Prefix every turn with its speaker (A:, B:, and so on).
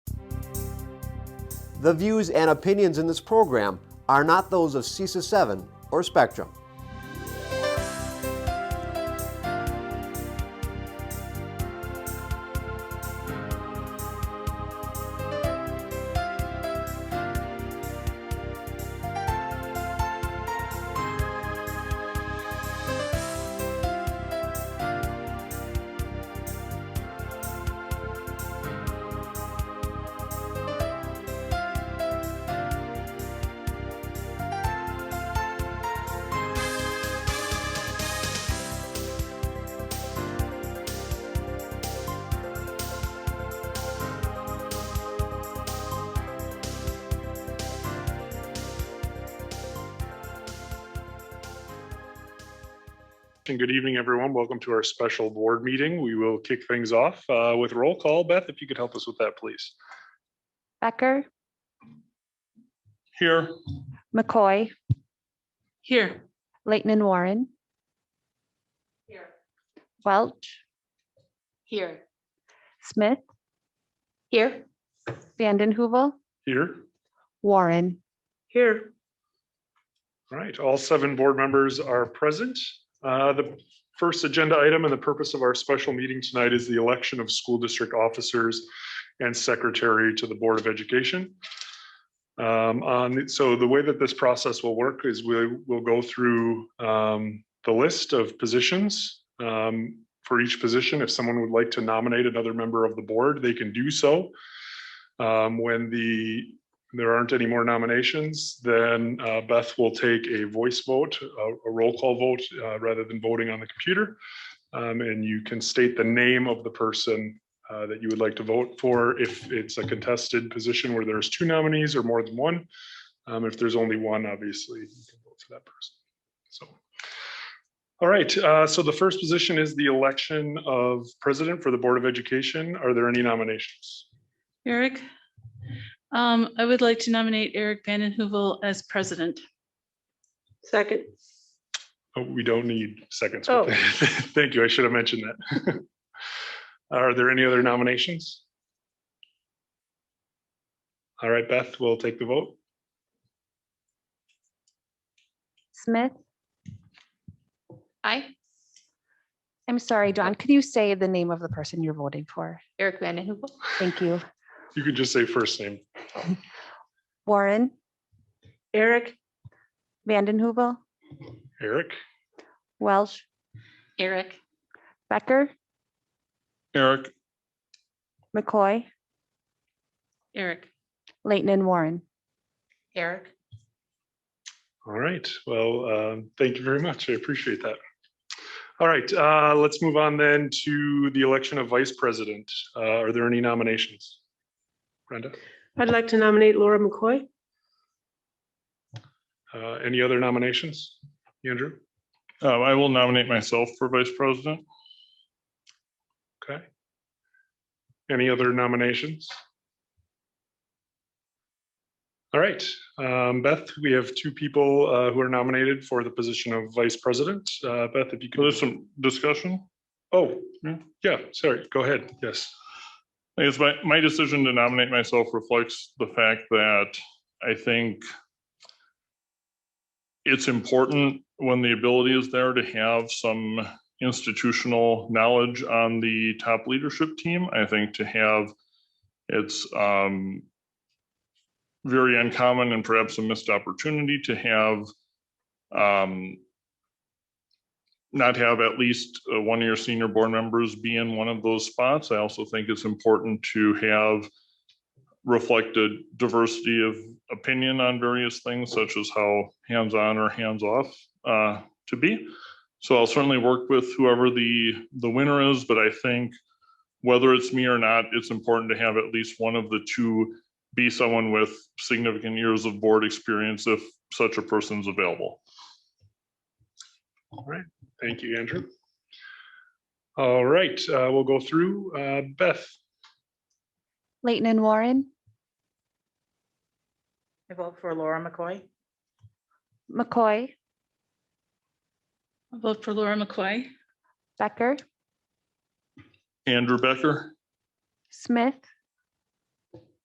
A: The views and opinions in this program are not those of CISA 7 or Spectrum.
B: And good evening, everyone. Welcome to our special board meeting. We will kick things off uh, with roll call. Beth, if you could help us with that, please.
C: Becker,
B: Here.
C: McCoy,
D: Here.
C: Leighton and Warren,
D: Here.
C: Welch,
D: Here.
C: Smith,
D: Here.
C: Vanden Heuvel,
B: Here.
C: Warren.
D: Here.
B: All right, all seven board members are present. Uh, The first agenda item and the purpose of our special meeting tonight is the election of school district officers and secretary to the Board of Education. Um, on- So the way that this process will work is we will go through um, the list of positions. Um, For each position, if someone would like to nominate another member of the board, they can do so. Um, When the there aren't any more nominations, then uh, Beth will take a voice vote, a- a roll call vote, uh, rather than voting on the computer. Um, And you can state the name of the person uh, that you would like to vote for if it's a contested position where there's two nominees or more than one. Um, If there's only one, obviously, you can vote for that person. So, all right, uh, so the first position is the election of president for the Board of Education. Are there any nominations?
D: Eric. Um, I would like to nominate Eric Vanden Heuvel as president.
E: Second,
B: Oh, we don't need seconds.
E: Oh.
B: Thank you. I should have mentioned that. Are there any other nominations? All right, Beth, we'll take the vote.
C: Smith,
F: Aye.
C: I'm sorry, Don, could you say the name of the person you're voting for?
F: Eric Vanden Heuvel.
C: Thank you.
B: You can just say first name.
C: Warren,
E: Eric,
C: Vanden Heuvel,
B: Eric?
C: Welch,
F: Eric.
C: Becker,
B: Eric.
C: McCoy,
D: Eric.
C: Leighton and Warren.
F: Eric.
B: All right, well, um, thank you very much. I appreciate that. All right, uh, let's move on then to the election of vice president. Uh, Are there any nominations? Brenda,
E: I'd like to nominate Laura McCoy.
B: Uh, any other nominations? Andrew?
G: Uh, I will nominate myself for vice president.
B: Okay. Any other nominations? All right, um, Beth, we have two people uh, who are nominated for the position of vice president. Uh, Beth, if you
G: So
B: could.
G: there's some discussion.
B: Oh, yeah, sorry, go ahead, yes.
G: I guess my, my decision to nominate myself reflects the fact that I think it's important when the ability is there to have some institutional knowledge on the top leadership team. I think to have it's um, very uncommon and perhaps a missed opportunity to have um, not have at least uh, one of your senior board members be in one of those spots. I also think it's important to have reflected diversity of opinion on various things such as how hands-on or hands-off uh, to be. So I'll certainly work with whoever the, the winner is, but I think whether it's me or not, it's important to have at least one of the two be someone with significant years of board experience if such a person's available.
B: Thank you, Andrew. All right, uh, we'll go through. Uh, Beth,
C: Leighton and Warren,
H: I vote for Laura McCoy.
C: McCoy,
D: I vote for Laura McCoy.
C: Becker,
G: Andrew Becker,
C: Smith,